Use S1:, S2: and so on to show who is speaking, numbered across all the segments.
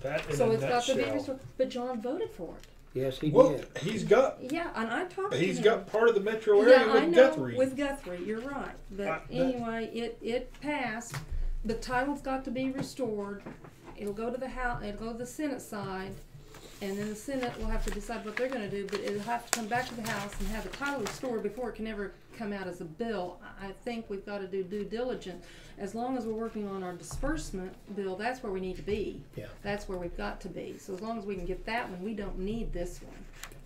S1: That in
S2: So
S1: a
S2: it's got to
S1: nutshell.
S2: be restored. But John voted for it.
S3: Yes, he
S1: Well,
S3: did.
S1: he's got
S2: Yeah, and I talked to
S1: he's
S2: him.
S1: got part of the metro area
S2: yeah,
S1: with
S2: I know
S1: Guthrie.
S2: with Guthrie. You're right. But
S1: Uh, that-
S2: anyway, it it passed. The title's got to be restored. It'll go to the house. It'll go to the Senate side, and then the Senate will have to decide what they're going to do. But it'll have to come back to the House and have the title restored before it can ever come out as a bill. I- I think we've got to do due diligence. As long as we're working on our disbursement bill, that's where we need to be.
S3: Yeah.
S2: That's where we've got to be. So as long as we can get that one, we don't need this one.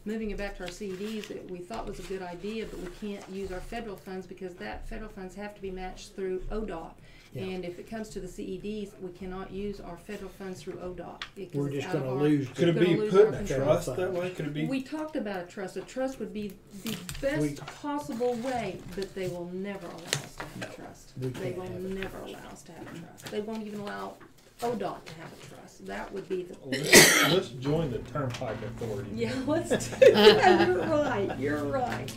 S2: Moving it back to our CDs, it, we thought was a good idea, but we can't use our federal funds because that federal funds have to be matched through ODOT.
S3: Yeah.
S2: And if it comes to the CEDs, we cannot use our federal funds through ODOT. because
S3: We're
S2: it's
S3: just
S2: out of
S3: gonna
S2: our-
S3: lose
S1: Could it
S2: Gonna
S1: be
S2: lose
S1: put
S2: our
S1: in a
S2: control.
S1: trust that way? Could it be?
S2: We talked about a trust. A trust would be the
S3: We-
S2: best possible way, but they will never allow us to have a trust.
S3: we
S2: They
S3: can't
S2: will
S3: have a
S2: never allow us to have a trust. They won't even allow ODOT to have a trust. That would be the,
S1: let's, let's join the Turnpike Authority.
S2: yeah, let's do that. You're right, you're right.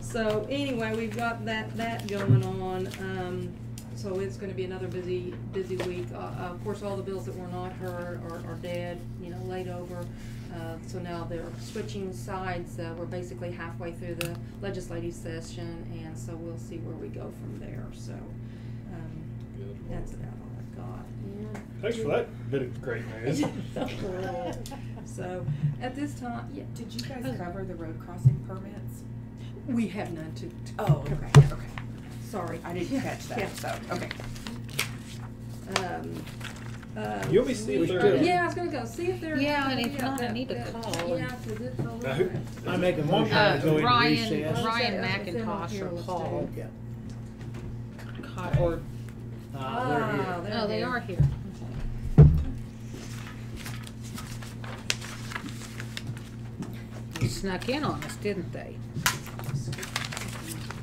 S2: So anyway, we've got that, that going on. Um, so it's gonna be another busy, busy week. Uh, of course, all the bills that were not heard are, are dead, you know, laid over. Uh, so now they're switching sides. Uh, we're basically halfway through the legislative session and so we'll see where we go from there. So, um,
S1: Good.
S2: that's about all I've got. Yeah.
S1: Thanks for that bit of great news.
S2: So, at this time, yeah,
S4: Did you guys cover the road crossing permits?
S2: we have none to, to-
S4: Oh,
S2: okay,
S4: okay.
S2: sorry.
S4: I didn't catch
S2: Yeah.
S4: that, so, okay.
S2: Um, uh,
S1: You want me to see if
S3: We
S1: they're
S3: could-
S1: good?
S2: Yeah, I was gonna go, see if they're.
S5: Yeah, and if
S2: yeah,
S5: not, I
S2: that-
S5: need to
S2: that-
S5: call.
S2: Yeah, 'cause it's a
S1: Now,
S2: little.
S1: who-
S3: I make a motion
S5: Uh,
S3: to go into
S5: Ryan,
S3: recess.
S5: Ryan
S2: Let's say, uh,
S5: McIntosh
S2: here,
S5: or
S2: let's
S5: Paul,
S2: do-
S3: Yeah.
S5: Cod- or,
S3: Ah,
S2: Ah,
S3: they're here.
S5: oh, they
S2: here.
S5: are here. They Snuck in on us, didn't they?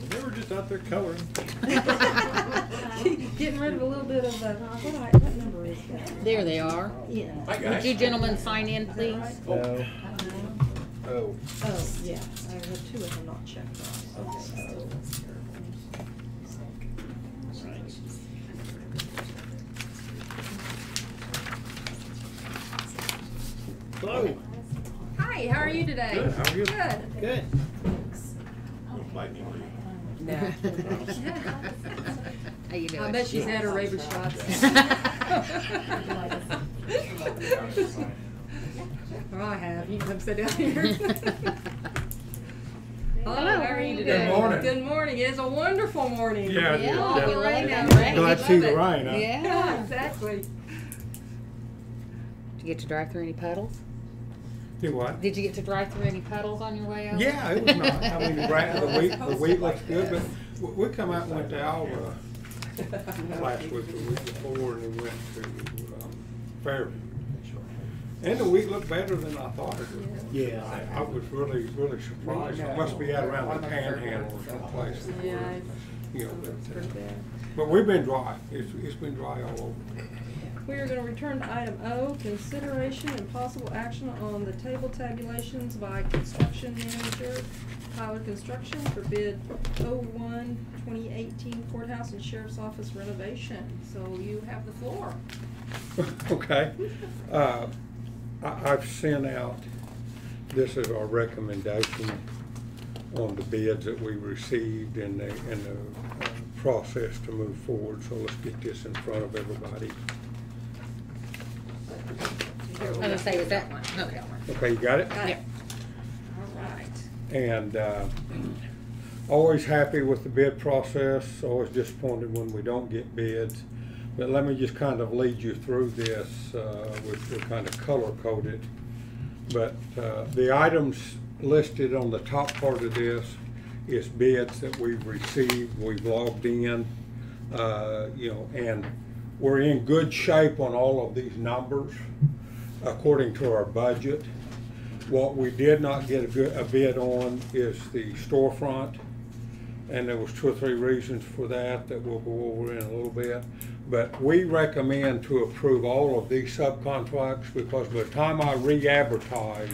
S1: They were just out there coloring.
S2: Getting rid of a little bit of the, what I, what number is that?
S5: There they are.
S2: Yeah.
S5: Would you gentlemen sign in, please?
S1: No. Oh.
S2: Oh, yeah, I have two of them not checked off. Okay.
S3: Hello,
S2: Hi, how are you today?
S1: Good, how are you?
S2: Good.
S3: good.
S4: No.
S5: How you doing?
S2: I bet she's had her rabies shots. Well, I have, you can come sit down here. Hello, how are you today?
S1: morning.
S2: Good morning, it's a wonderful morning.
S1: Yeah, it is,
S5: Yeah,
S1: yeah.
S5: we love
S2: Yeah.
S5: it.
S2: Glad
S5: We
S2: to
S5: love
S2: see you,
S5: it.
S1: Ryan, huh?
S2: Yeah,
S5: Yeah.
S2: exactly.
S5: Did you get to drive through any puddles?
S1: Do what?
S5: Did you get to drive through any puddles on your way out?
S6: Yeah, it was nice. I mean, right, the wheat, the wheat looks good, but we, we come out and went to Alba last week, the week before, and we went to, um, Fairview. And the wheat looked better than I thought it would.
S3: Yeah.
S6: I, I was really, really surprised. It must be out around the panhandle or someplace,
S2: Yeah,
S6: you know, but, uh,
S2: it's pretty bad.
S6: but we've been dry. It's, it's been dry all over.
S2: We are gonna return to item O, consideration and possible action on the table tabulations by construction manager, Tyler Construction for bid oh-one, twenty-eighteen courthouse and sheriff's office renovation. So you have the floor.
S6: Okay. Uh, I, I've sent out, this is our recommendation on the bids that we received and the, and the uh, process to move forward, so let's get this in front of everybody.
S5: I was gonna say, was that one? Okay.
S6: Okay, you got it?
S5: Yeah.
S2: All right.
S6: And uh, always happy with the bid process, always disappointed when we don't get bids. But let me just kind of lead you through this, uh, which will kind of color coded. But uh, the items listed on the top part of this is bids that we've received, we've logged in, uh, you know, and we're in good shape on all of these numbers according to our budget. What we did not get a good, a bid on is the storefront, and there was two or three reasons for that that we'll go over in a little bit. But we recommend to approve all of these subcontracts because by the time I re-advertise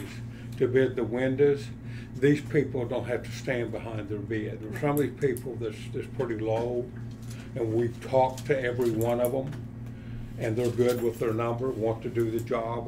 S6: to bid the windows, these people don't have to stand behind their bid. There's some of these people that's, that's pretty low, and we've talked to every one of them and they're good with their number, want to do the job.